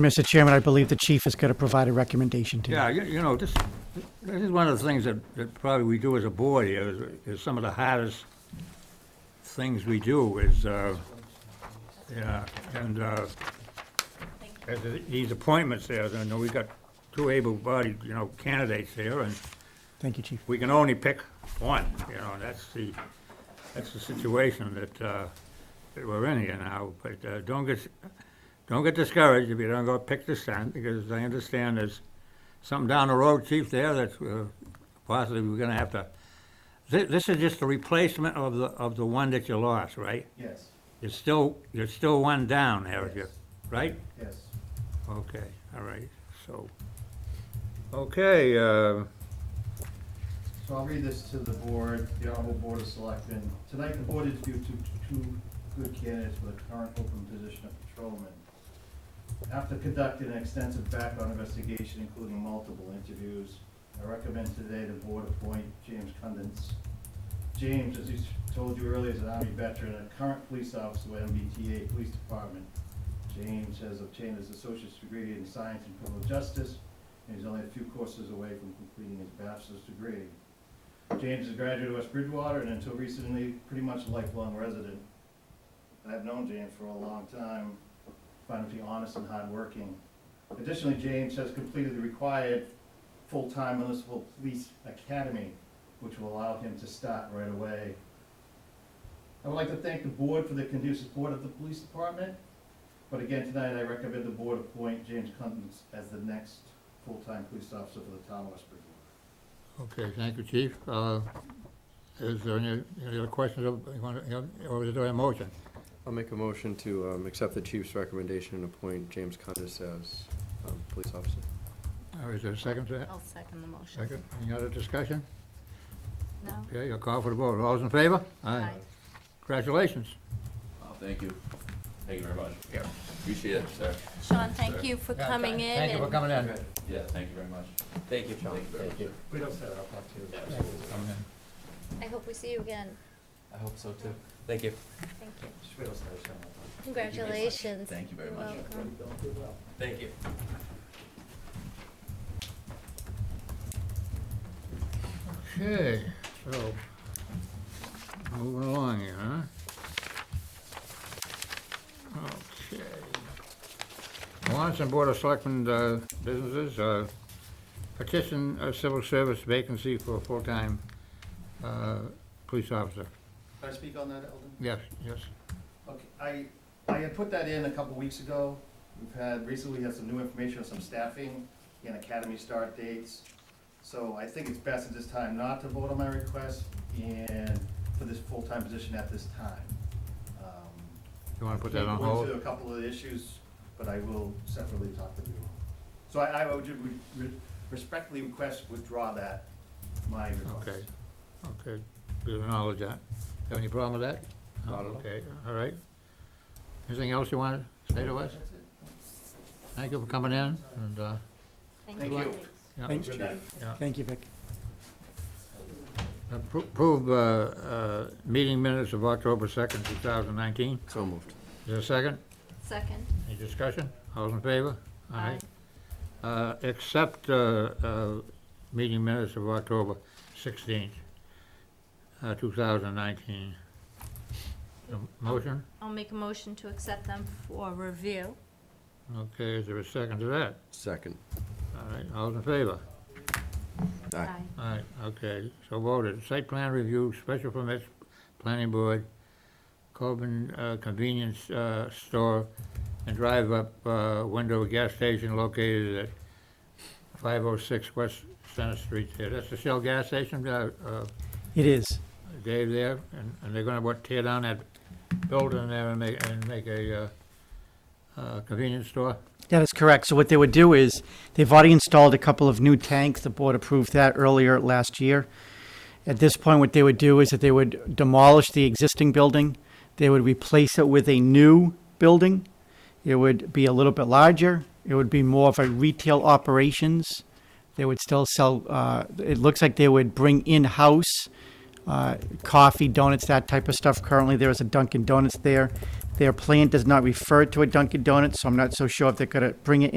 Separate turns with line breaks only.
Mr. Chairman, I believe the chief is going to provide a recommendation to you.
Yeah, you, you know, this, this is one of the things that, that probably we do as a board here, is- is some of the hardest things we do is, uh, yeah, and, uh, as the- these appointments there, you know, we got two able-bodied, you know, candidates there, and
Thank you, chief.
we can only pick one, you know, and that's the, that's the situation that, uh, that we're in here now, but, uh, don't get, don't get discouraged if you don't go pick this time, because I understand there's something down the road, chief, there, that's, uh, possibly we're gonna have to, thi- this is just a replacement of the, of the one that you lost, right?
Yes,
You're still, you're still one down, Eric, you- right?
yes.
Okay, all right, so, okay, uh,
So I'll read this to the board, the honorable board of selectmen. Tonight, the board interviewed two, two good candidates for the current open position of patrolman. After conducting an extensive background investigation, including multiple interviews, I recommend today the board appoint James Cundance. James, as he told you earlier, is an Army veteran and a current police officer with MBTA Police Department. James has obtained his associate's degree in science and criminal justice, and he's only a few courses away from completing his bachelor's degree. James is a graduate of West Bridgewater and until recently, pretty much a lifelong resident. I've known James for a long time, find him to be honest and hardworking. Additionally, James has completed the required full-time municipal police academy, which will allow him to start right away. I would like to thank the board for the conducive support of the police department, but again, tonight I recommend the board appoint James Cundance as the next full-time police officer for the town of West Bridgewater.
Okay, thank you, Chief. Uh, Is there any, any other questions, of- you wanna- you know, or is there a motion?
I'll make a motion to um, accept the chief's recommendation and appoint James Cundis as um, police officer.
Or Uh, is there a second to that?
I'll second the motion.
Second, any other discussion?
No?
Okay, I'll call for the vote. All those in favor?
Aye.
Congratulations.
Oh, thank you. Thank you very much.
Yeah.
Appreciate it, sir.
Sean, thank you for coming in.
Thank you for
and-
coming in.
Yeah, thank you very much. Thank you, Sean. Thank you.
We don't set it up
Coming in.
I hope we see you again.
I hope so too. Thank you.
Thank you.
that.
Congratulations.
Thank you very
You're
much.
welcome.
Thank you.
Okay, so, moving along here, huh? Okay. Lawrence and Board of Selectmen uh, businesses, uh, petition a civil service vacancy for a full-time uh, police officer.
Can I speak on that, Eldon?
Yes, yes.
Okay, I, I had put that in a couple weeks ago. We've had, recently had some new information on some staffing and academy start dates. So I think it's best at this time not to vote on my request and for this full-time position at this time. Um,
You want to put that on
we'll
hold?
do a couple of issues, but I will separately talk to you. So I, I would ju- re- respectfully request withdraw that, my request.
Okay, okay, we acknowledge that. Have any problem with that? No,
Not at all.
Okay, all right. Anything else you want to say to us?
That's it.
Thank you for coming in, and, uh,
Thank you.
yeah.
Thanks,
Good
chief.
night.
Thank you, Vic.
Appro- Approve, uh, uh, meeting minutes of October second, two thousand nineteen.
So moved.
Is there a second?
Second.
Any discussion? All in favor? Uh, accept, uh, uh, meeting minutes of October sixteenth, uh, two thousand nineteen. Motion?
I'll make a motion to accept them for review.
Okay, is there a second to that?
Second.
All right, all in favor?
Aye.
All right, okay, so voted. Site plan review, special permits, planning board, Coben uh, Convenience uh, Store, and drive-up uh, window gas station located at 506 West Center Street there. That's the Shell gas station, uh, uh,
It is.
Dave, there, and and they're gonna, what, tear down that building there and make, and make a uh, uh, convenience store?
That is correct. So what they would do is, they've already installed a couple of new tanks. The board approved that earlier last year. At this point, what they would do is that they would demolish the existing building. They would replace it with a new building. It would be a little bit larger. It would be more of a retail operations. They would still sell, uh, it looks like they would bring in-house uh, coffee, donuts, that type of stuff. Currently, there is a Dunkin' Donuts there. Their plan does not refer to a Dunkin' Donuts, so I'm not so sure if they're going to bring it in